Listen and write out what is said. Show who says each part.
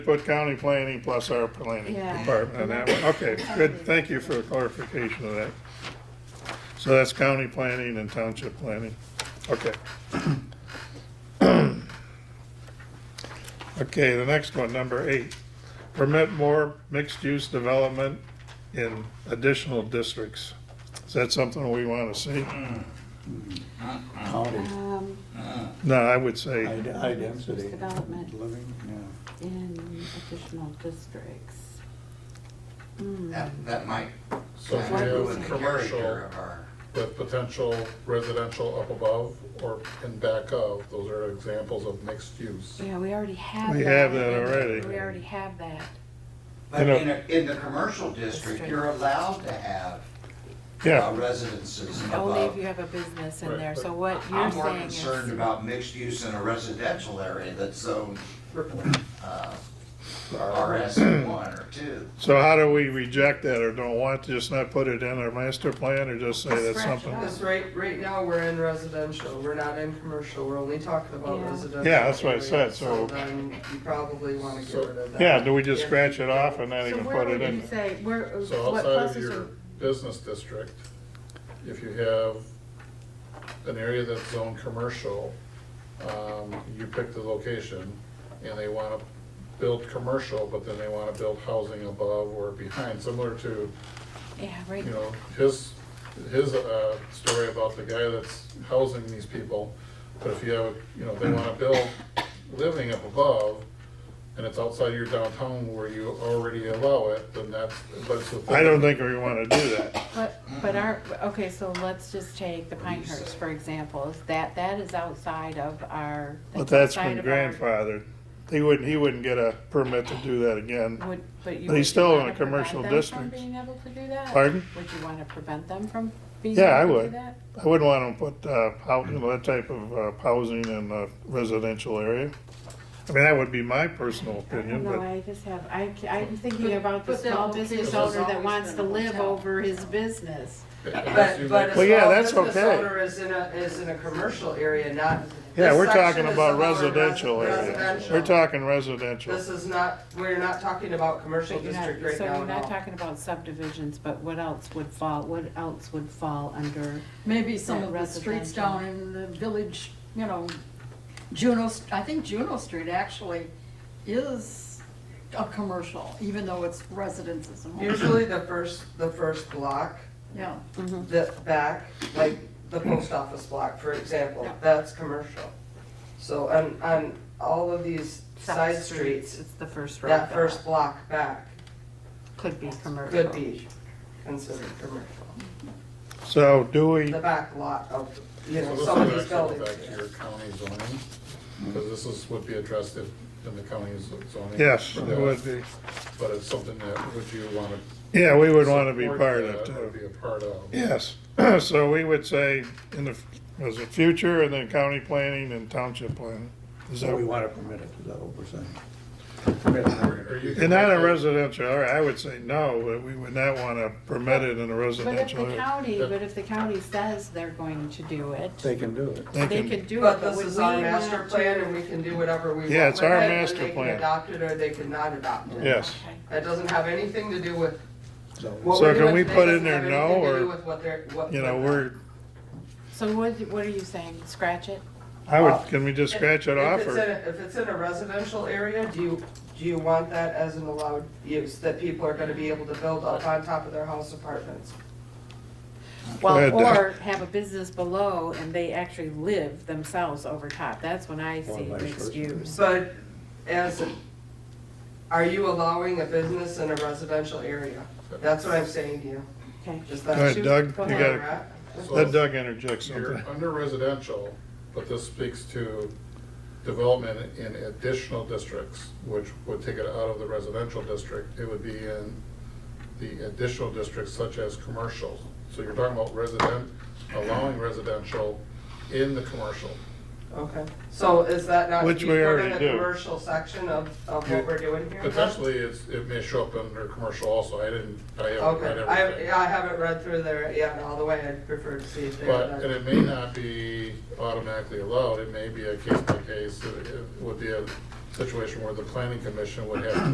Speaker 1: Put county planning plus our planning
Speaker 2: Yeah.
Speaker 1: department on that one. Okay, good, thank you for the clarification of that. So that's county planning and township planning, okay. Okay, the next one, number eight, permit more mixed-use development in additional districts. Is that something we want to see?
Speaker 3: County,
Speaker 2: Um,
Speaker 1: No, I would say,
Speaker 3: high, high density.
Speaker 2: Development.
Speaker 3: Living, yeah.
Speaker 2: in additional districts.
Speaker 4: That, that might.
Speaker 5: So
Speaker 4: kind
Speaker 2: we
Speaker 4: of
Speaker 2: do
Speaker 4: ruin the
Speaker 5: commercial-
Speaker 4: character of our-
Speaker 5: with potential residential up above or in back of, those are examples of mixed use.
Speaker 2: Yeah, we already have that.
Speaker 1: We have that already.
Speaker 2: We already have that.
Speaker 1: You
Speaker 4: But
Speaker 1: know-
Speaker 4: in, a- in the commercial district, you're allowed to have uh,
Speaker 1: yeah,
Speaker 4: residences
Speaker 2: Only if
Speaker 4: above.
Speaker 2: you have a business in
Speaker 5: Right,
Speaker 2: there,
Speaker 5: but
Speaker 2: so what you're
Speaker 4: I'm more
Speaker 2: saying is.
Speaker 4: concerned about mixed use in a residential area that's zoned, uh, RS one or two.
Speaker 1: so how do we reject that or don't want, to just not put it in our master plan or just say that's
Speaker 2: Scratch it
Speaker 1: something?
Speaker 2: out.
Speaker 6: Because right, right now, we're in residential, we're not in commercial, we're only talking about
Speaker 2: Yeah.
Speaker 6: residential.
Speaker 1: Yeah, that's what I
Speaker 6: areas.
Speaker 1: said, so-
Speaker 6: then you probably wanna get
Speaker 5: So-
Speaker 6: rid of that.
Speaker 1: Yeah, do we just scratch it off and not
Speaker 2: So
Speaker 1: even
Speaker 2: where
Speaker 1: put
Speaker 2: would
Speaker 1: it
Speaker 2: you
Speaker 1: in?
Speaker 2: say, where,
Speaker 5: So
Speaker 2: what
Speaker 5: outside of
Speaker 2: pluses are?
Speaker 5: your business district, if you have an area that's zoned commercial, um, you pick the location and they wanna build commercial, but then they wanna build housing above or behind, similar to
Speaker 2: Yeah, right,
Speaker 5: you know, his, his, uh, story about the guy that's housing these people, but if you have, you know, they wanna build living up above, and it's outside your downtown where you already allow it, then that's, but it's within.
Speaker 1: I don't think we wanna do that.
Speaker 2: but, but our, okay, so let's just take the Pinehurst, for example, is that, that is outside of our.
Speaker 1: But that's
Speaker 2: outside
Speaker 1: been
Speaker 2: of our-
Speaker 1: grandfathered. He wouldn't, he wouldn't get a permit to do that again.
Speaker 2: Would, but you.
Speaker 1: But he's
Speaker 2: would you
Speaker 1: still in
Speaker 2: wanna
Speaker 1: a commercial
Speaker 2: prevent
Speaker 1: district.
Speaker 2: them From being able to do that?
Speaker 1: Pardon?
Speaker 2: Would you wanna prevent them from being
Speaker 1: Yeah, I
Speaker 2: able to do
Speaker 1: would.
Speaker 2: that?
Speaker 1: I wouldn't want to put, uh, hou- you know, that type of, uh, housing in a residential area. I mean, that would be my personal opinion,
Speaker 2: No,
Speaker 1: but,
Speaker 2: I just have, I, ca- I'm thinking
Speaker 6: But-
Speaker 2: about the
Speaker 6: but that
Speaker 2: small
Speaker 6: location's
Speaker 2: business owner that
Speaker 6: always
Speaker 2: wants
Speaker 6: been
Speaker 2: to
Speaker 6: a
Speaker 2: live
Speaker 6: hotel.
Speaker 2: over his business.
Speaker 5: Unless you
Speaker 6: But, but
Speaker 5: make-
Speaker 6: a
Speaker 1: Well, yeah,
Speaker 6: small
Speaker 1: that's
Speaker 6: business
Speaker 1: okay.
Speaker 6: owner is in a, is in a commercial area, not.
Speaker 1: yeah,
Speaker 6: this
Speaker 1: we're
Speaker 6: section
Speaker 1: talking
Speaker 6: is
Speaker 1: about
Speaker 6: all res-
Speaker 1: residential area.
Speaker 6: residential.
Speaker 1: We're talking residential.
Speaker 6: This is not, we're not talking about commercial
Speaker 2: But you're not-
Speaker 6: district right
Speaker 2: So
Speaker 6: now
Speaker 2: you're
Speaker 6: at
Speaker 2: not
Speaker 6: all.
Speaker 2: talking about subdivisions, but what else would fall, what else would fall under?
Speaker 7: Maybe some
Speaker 2: That
Speaker 7: of the streets
Speaker 2: residential.
Speaker 7: down in the village, you know, Juno, St- I think Juno Street actually is a commercial, even though it's residences and homes.
Speaker 6: Usually the first, the first block,
Speaker 7: Yeah,
Speaker 2: Mm-hmm.
Speaker 6: the back, like the post office block, for example,
Speaker 7: Yeah.
Speaker 6: that's commercial. So on, on all of these side streets,
Speaker 2: It's the first row.
Speaker 6: that first block back
Speaker 2: Could be commercial.
Speaker 6: could be considered commercial.
Speaker 1: So do we,
Speaker 6: The back lot of, you
Speaker 5: So
Speaker 6: know,
Speaker 5: this
Speaker 6: some of
Speaker 5: would
Speaker 6: these
Speaker 5: actually go
Speaker 6: buildings.
Speaker 5: back to your county zoning, because this is, would be addressed in, in the county zoning.
Speaker 1: yes,
Speaker 5: for
Speaker 1: it
Speaker 5: that,
Speaker 1: would be.
Speaker 5: But it's something that, would you wanna?
Speaker 1: Yeah, we would want to be
Speaker 5: support
Speaker 1: part
Speaker 5: that
Speaker 1: of
Speaker 5: or
Speaker 1: too.
Speaker 5: Be a part of.
Speaker 1: Yes, so we would say in the, was it future and then county planning and township planning? Is
Speaker 3: So we
Speaker 1: that,
Speaker 3: want to permit it, is that what we're saying?
Speaker 5: Or you could
Speaker 1: and not a
Speaker 5: make it-
Speaker 1: residential, all right, I would say no, but we would not want to permit it in a
Speaker 2: But if
Speaker 1: residential
Speaker 2: the
Speaker 1: area.
Speaker 2: county, but if the county says they're going to do it,
Speaker 3: They can do it.
Speaker 2: they could do it.
Speaker 6: But this
Speaker 2: would
Speaker 6: is
Speaker 2: we
Speaker 6: our
Speaker 2: want
Speaker 6: master
Speaker 2: to-
Speaker 6: plan and we can do whatever we want.
Speaker 1: Yeah, it's
Speaker 6: with
Speaker 1: our
Speaker 6: it, and
Speaker 1: master
Speaker 6: They
Speaker 1: plan.
Speaker 6: can adopt it or they can not adopt it.
Speaker 1: Yes,
Speaker 2: Okay.
Speaker 6: It doesn't have anything to do with.
Speaker 3: So
Speaker 6: what
Speaker 1: So
Speaker 6: we're
Speaker 1: can
Speaker 6: doing
Speaker 1: we
Speaker 6: today
Speaker 1: put in
Speaker 6: doesn't
Speaker 1: there
Speaker 6: have
Speaker 1: no,
Speaker 6: anything to
Speaker 1: or,
Speaker 6: do with what they're- what-
Speaker 1: you know,
Speaker 6: what-
Speaker 1: we're,
Speaker 2: So what, what are you saying, scratch it?
Speaker 1: I would, can we just scratch it
Speaker 6: If
Speaker 1: off
Speaker 6: it's in
Speaker 1: or?
Speaker 6: a- If it's in a residential area, do you, do you want that as an allowed use, that people are gonna be able to build up on top of their house apartments?
Speaker 1: ahead,
Speaker 2: Well,
Speaker 1: Deb.
Speaker 2: or have a business below and they actually live themselves over top, that's when I
Speaker 3: Or
Speaker 2: see
Speaker 3: vice
Speaker 2: mixed
Speaker 3: versa.
Speaker 2: use.
Speaker 6: But as, are you allowing a business in a residential area? That's what I'm saying to you,
Speaker 2: Okay.
Speaker 6: just
Speaker 1: Go ahead,
Speaker 6: that.
Speaker 1: Doug,
Speaker 2: Go
Speaker 1: you
Speaker 2: ahead.
Speaker 1: gotta, let Doug interject
Speaker 5: You're
Speaker 1: something.
Speaker 5: under residential, but this speaks to development in additional districts, which would take it out of the residential district. It would be in the additional districts such as commercial. So you're talking about resident, allowing residential in the commercial.
Speaker 6: Okay, so is that not?
Speaker 1: Which we
Speaker 6: we're
Speaker 1: already
Speaker 6: in the
Speaker 1: do.
Speaker 6: Commercial section of, of what we're doing here?
Speaker 5: Potentially, it's, it may show up under commercial also. I didn't, I haven't read
Speaker 6: Okay, I,
Speaker 5: everything.
Speaker 6: yeah, I haven't read through there yet all the way, I'd prefer to see if they.
Speaker 5: But, and it may not be automatically allowed, it may be a case by case, it it would be a situation where the planning commission would have to